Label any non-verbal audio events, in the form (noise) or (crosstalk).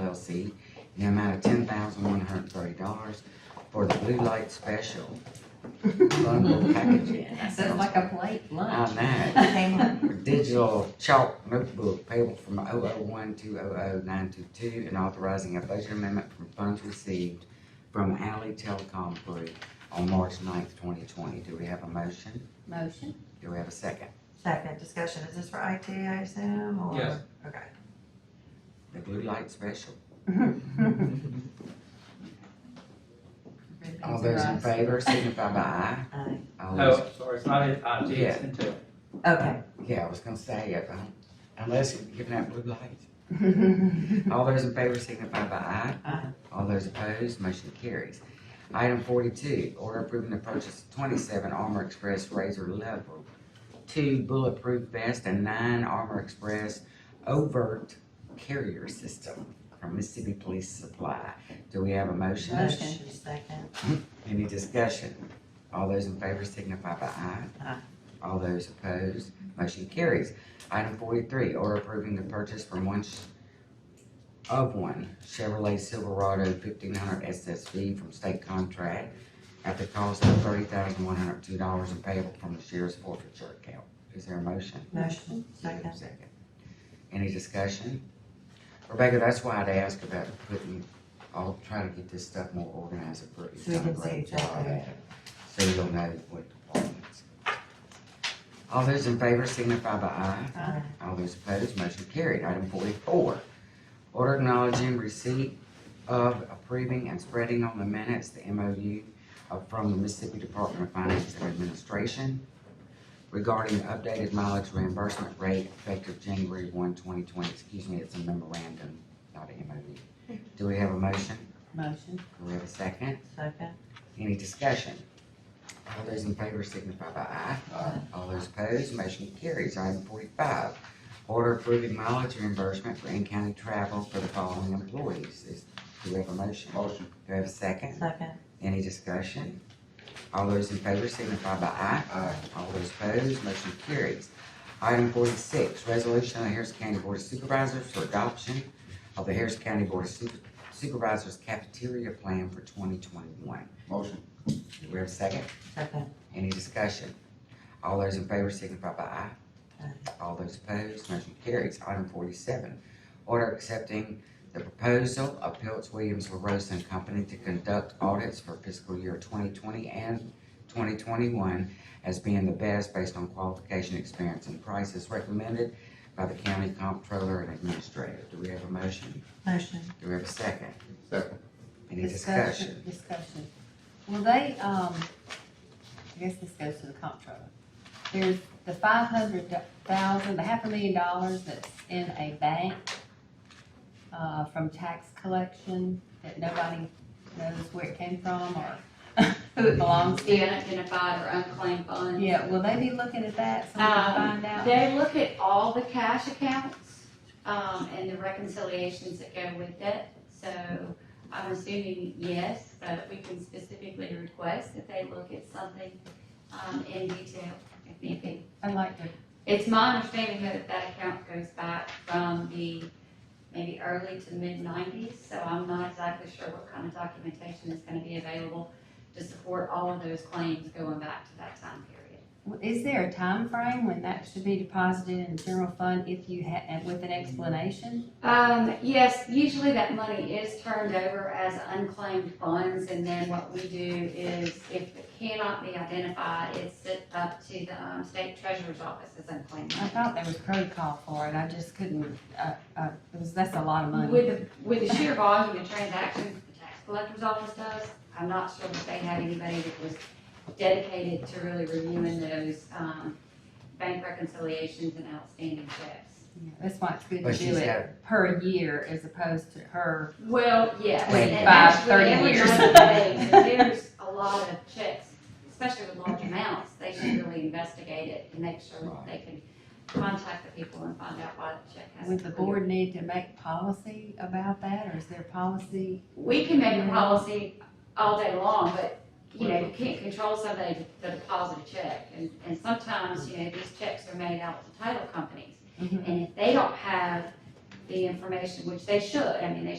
LLC in the amount of ten thousand one hundred and thirty dollars for the blue light special bundle packaging. That sounds like a plate lunch. I know. for digital chalk notebook payable from 001 to 00922 and authorizing a budget amendment from funds received from Alley Telecom Group on March 9th, twenty twenty. Do we have a motion? Motion? Do we have a second? Second discussion, is this for IT, I assume, or? Yes. The blue light special. Okay. All those in favor signify by aye. Aye. All those- Oh, sorry, it's not, uh, it's into, Okay. Yeah, I was gonna say, if, I- unless you're giving out blue light. All those in favor signify by aye. Aye. All those opposed, motion carries. Item forty-two, order approving the purchase of twenty-seven Armor Express Razor Level two bulletproof vest and nine Armor Express overt carrier system from Mississippi Police Supply. Do we have a motion? Motion. Second. Any discussion? All those in favor signify by aye. Aye. All those opposed, motion carries. Item forty-three, order approving the purchase from one sh- of one Chevrolet Silverado fifteen hundred SSV from state contract at the cost of thirty thousand one hundred two dollars and payable from the sheriff's forfeiture account. Is there a motion? Motion. Is there a Second. Any discussion? Rebecca, that's why I'd ask about putting, I'll try to get this stuff more organized for you. So we can see exactly. So you'll know what departments. All those in favor signify by aye. Aye. All those opposed, motion carried. Item forty-four, order acknowledging receipt of approving and spreading on the minutes the MOU of- from the Mississippi Department of Finance and Administration regarding updated mileage reimbursement rate effective January 1, 2020. Excuse me, it's a memorandum, not an MOU. Do we have a motion? Motion? Do we have a second? Second. Any discussion? All those in favor signify by aye. Aye. All those opposed, motion carries. Item forty-five, order approving mileage reimbursement for in-county travel for the following employees. Is- Do we have a motion? Motion. Do we have a second? Second. Any discussion? All those in favor signify by aye. Aye. All those opposed, motion carries. Item forty-six, resolution of the Harrison County Board of Supervisors for adoption of the Harrison County Board of Super- Supervisors cafeteria plan for twenty twenty-one. Motion. Do we have a second? Second. Any discussion? All those in favor signify by aye. All those opposed, motion carries. Item forty-seven, order accepting the proposal of Pilts Williams LaRosa and Company to conduct audits for fiscal year twenty twenty and twenty twenty-one as being the best based on qualification, experience, and prices recommended by the county comptroller and administrator. Do we have a motion? Motion. Do we have a second? Second. Any discussion? Discussion. Well, they, um, I guess this goes to the comptroller. There's the five hundred thousand, the half a million dollars that's in a bank, uh, from tax collection that nobody knows where it came from or (laughs) who it belongs to. the unidentified or unclaimed funds. Yeah, will they be looking at that so we can Um, find out? They look at all the cash accounts, um, and the reconciliations that go with it. So I'm assuming yes, but we can specifically request that they look at something, um, in detail if need be. I'd like to, It's my understanding that that account goes back from the maybe early to mid nineties, so I'm not exactly sure what kind of documentation is gonna be available to support all of those claims going back to that time period. is there a time frame when that should be deposited in the general fund if you ha, and with an explanation? Um, yes, usually that money is turned over as unclaimed funds, and then what we do is if it cannot be identified, it's sent up to the, um, state treasurer's office as unclaimed I money. thought there was protocol for it, I just couldn't, uh, uh, it was, that's a lot of money. With, the- with the sheer volume of transactions the tax collector's office does, I'm not sure that they had anybody that was dedicated to really reviewing those, um, bank reconciliations and outstanding checks. Yeah, That's why it's good But to do she's it got, per year as opposed to per, Well, yes. Wait, and five, actually, 30 every years. one of those, There's a lot of checks, especially with large amounts, they should really investigate it and make sure that they can contact the people and find out why the check has. would the to clear. board need to make policy about that, or is there policy? We can make a policy all day long, but, you know, you can't control somebody to deposit a check. And, and sometimes, you know, these checks are made out to title companies. Mhm. And if they don't have the information, which they should, I mean, they